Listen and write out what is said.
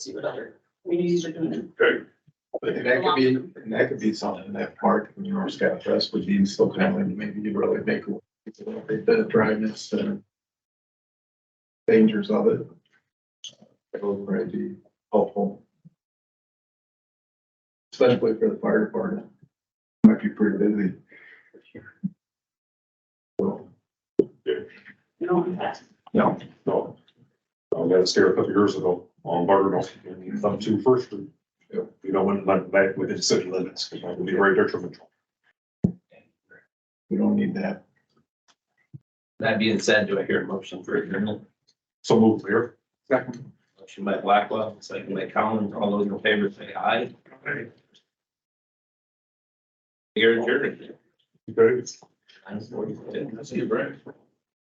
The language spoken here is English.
see what other communities are doing. Okay. And that could be, and that could be something that part of your scout fest would be still kind of maybe you really make the dryness and dangers of it. That would probably be helpful. Especially for the fire department. Might be pretty busy. So, You know, in fact, No, No. I got scared Um, a couple years ago on Barterville, and you come to First Street. Yep. You know, when, like, back within city limits, it would be very detrimental. we don't need that. That being said, do I hear a motion for adjournment? So move there. Motion by Blackwell, second by Collins. All those in favor say aye. You're adjourned. Okay. Nine forty-two. Let's get a break.